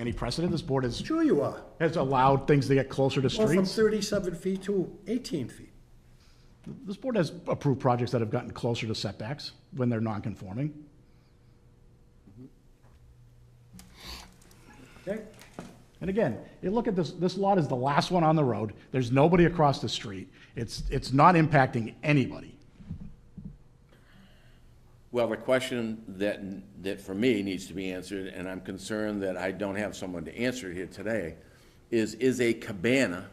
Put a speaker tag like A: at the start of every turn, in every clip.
A: any precedent. This board has,
B: Sure you are.
A: has allowed things to get closer to
B: Well, from
A: streets.
B: thirty-seven feet to eighteen feet.
A: This board has approved projects that have gotten closer to setbacks when they're non-conforming.
B: Okay?
A: And again, you look at this, this lot is the last one on the road. There's nobody across the street. It's, it's not impacting anybody.
C: Well, the question that, that for me needs to be answered, and I'm concerned that I don't have someone to answer here today, is, is a cabana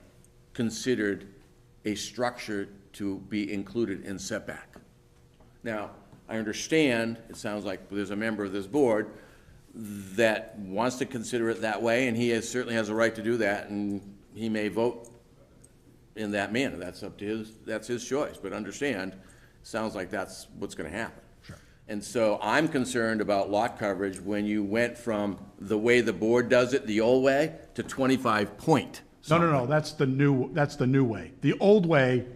C: considered a structure to be included in setback? Now, I understand, it sounds like there's a member of this board that wants to consider it that way, and he has- certainly has a right to do that, and he may vote in that manner. That's up to his, that's his choice, but understand, sounds like that's what's gonna happen. Sure. And so I'm concerned about lot coverage when you went from the way the board does it, the old way, to twenty-five point.
A: No, no, no, that's the new, that's the new way. The old way,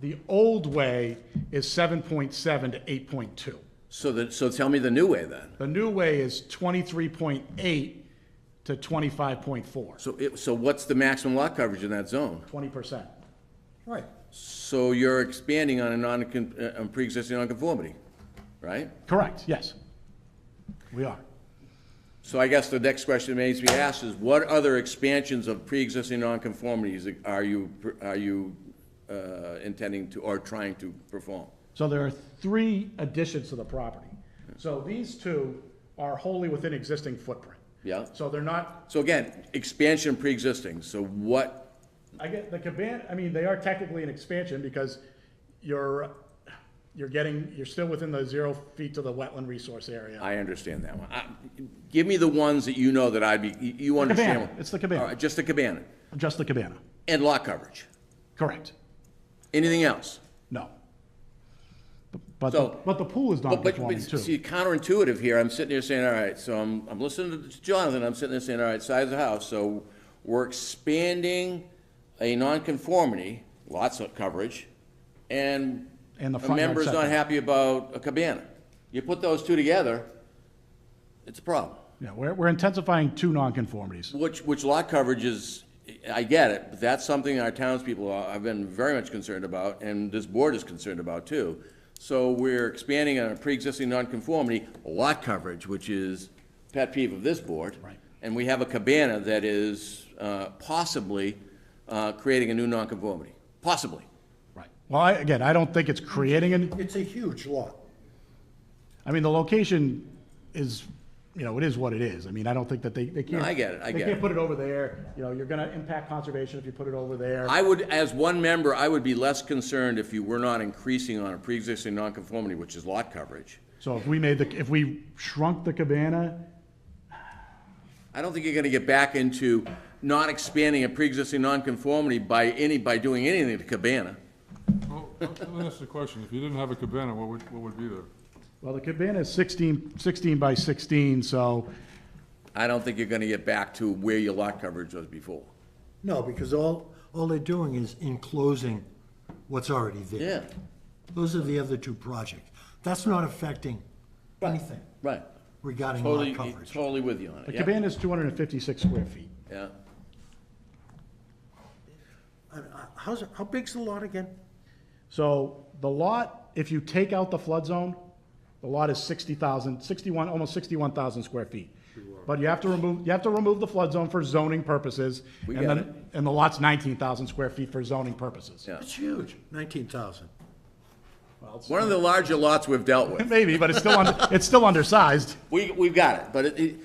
A: the old way is seven point seven to eight point two.
C: So that, so tell me the new way then.
A: The new way is twenty-three point eight to twenty-five point four,
C: So it, so what's the maximum lot coverage in that zone?
A: twenty percent.
B: Right.
C: So you're expanding on a non, uh, on pre-existing nonconformity, right?
A: Correct, yes. We are.
C: So I guess the next question that needs to be asked is, what other expansions of pre-existing nonconformities are you, are you uh, intending to, or trying to perform?
A: So there are three additions to the property. So these two are wholly within existing footprint.
C: Yeah.
A: So they're not,
C: So again, expansion of pre-existing, so what,
A: I get the cabana, I mean, they are technically an expansion because you're, you're getting, you're still within the zero feet to the wetland resource area.
C: I understand that one. I- Give me the ones that you know that I'd be, you- you understand.
A: cabana. It's the cabana.
C: All right, Just the cabana,
A: Just the cabana.
C: and lot coverage.
A: Correct.
C: Anything else?
A: No. But, the-
C: So-
A: but the pool is
C: But, but,
A: non-conforming
C: but
A: too.
C: see, counterintuitive here, I'm sitting here saying, all right, so I'm, I'm listening to Jonathan, I'm sitting there saying, all right, size of the house, so we're expanding a nonconformity, lots of coverage, and
A: And the
C: a
A: front yard
C: member's not
A: setback.
C: happy about a cabana. You put those two together, it's a problem.
A: Yeah, we're, we're intensifying two non-conformities.
C: Which, which lot coverage is, I get it, but that's something our townspeople are- have been very much concerned about, and this board is concerned about too. So we're expanding on a pre-existing nonconformity, lot coverage, which is pet peeve of this board.
A: Right.
C: And we have a cabana that is uh, possibly uh, creating a new nonconformity, possibly.
A: Right. Well, I, again, I don't think it's creating an,
B: It's a huge lot.
A: I mean, the location is, you know, it is what it is. I mean, I don't think that they, they can't.
C: I get it, I
A: They
C: get
A: can't
C: it.
A: put it over there. You know, you're gonna impact conservation if you put it over there.
C: I would, as one member, I would be less concerned if you were not increasing on a pre-existing nonconformity, which is lot coverage.
A: So if we made the, if we shrunk the cabana,
C: I don't think you're gonna get back into not expanding a pre-existing nonconformity by any, by doing anything to Cabana.
D: Well, let me ask you a question. If you didn't have a cabana, what would, what would be there?
A: well, the cabana is 16 16 by sixteen, so,
C: I don't think you're gonna get back to where your lot coverage was before.
B: No, because all, all they're doing is enclosing what's already there.
C: Yeah,
B: Those are the other two projects. That's not affecting anything
C: right.
B: regarding
C: Totally, e-
B: lot coverage.
C: totally with you on
A: the
C: it, yeah,
A: cabana is two hundred and fifty-six square feet.
C: yeah.
B: And, uh, How's, it- how big's the lot again?
A: So the lot, if you take out the flood zone, the lot is 60,000, 61, almost 61,000 square feet. But you have to remove, you have to remove the flood zone for zoning purposes.
C: We
A: and
C: get
A: then- And the lot's 19,000 square feet for zoning purposes.
C: Yeah.
B: It's huge, nineteen thousand.
A: Well, it's-
C: One of the larger lots we've dealt with.
A: Maybe, but it's still, under- it's still undersized.
C: We, we've got it, but it, it,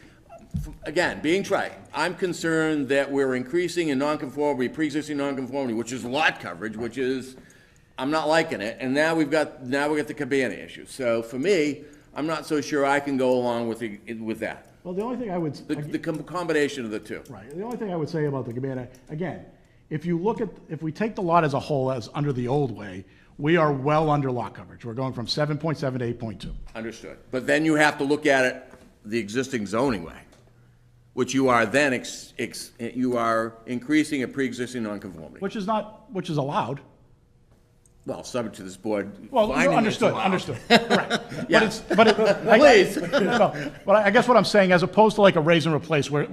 C: again, being trite, I'm concerned that we're increasing in nonconformity, pre-existing nonconformity, which is lot coverage, which is, I'm not liking it, and now we've got, now we got the cabana issue. So for me, I'm not so sure I can go along with the, with that,
A: Well, the only thing I would.
C: the, the com- combination of the two.
A: Right, the only thing I would say about the cabana, again, if you look at, if we take the lot as a whole as under the old way, we are well under lot coverage. We're going from 7.7 to 8.2.
C: Understood. But then you have to look at it the existing zoning way, which you are then ex, ex, you are increasing a pre-existing nonconformity.
A: Which is not, which is allowed.
C: well, subject to this board.
A: Well,
C: finding it's
A: understood,
C: allowed.
A: understood, right. But
C: Yeah.
A: it's, but it. I-
C: Please.
A: No, But I I guess what I'm saying, as opposed to like a raise and replace where,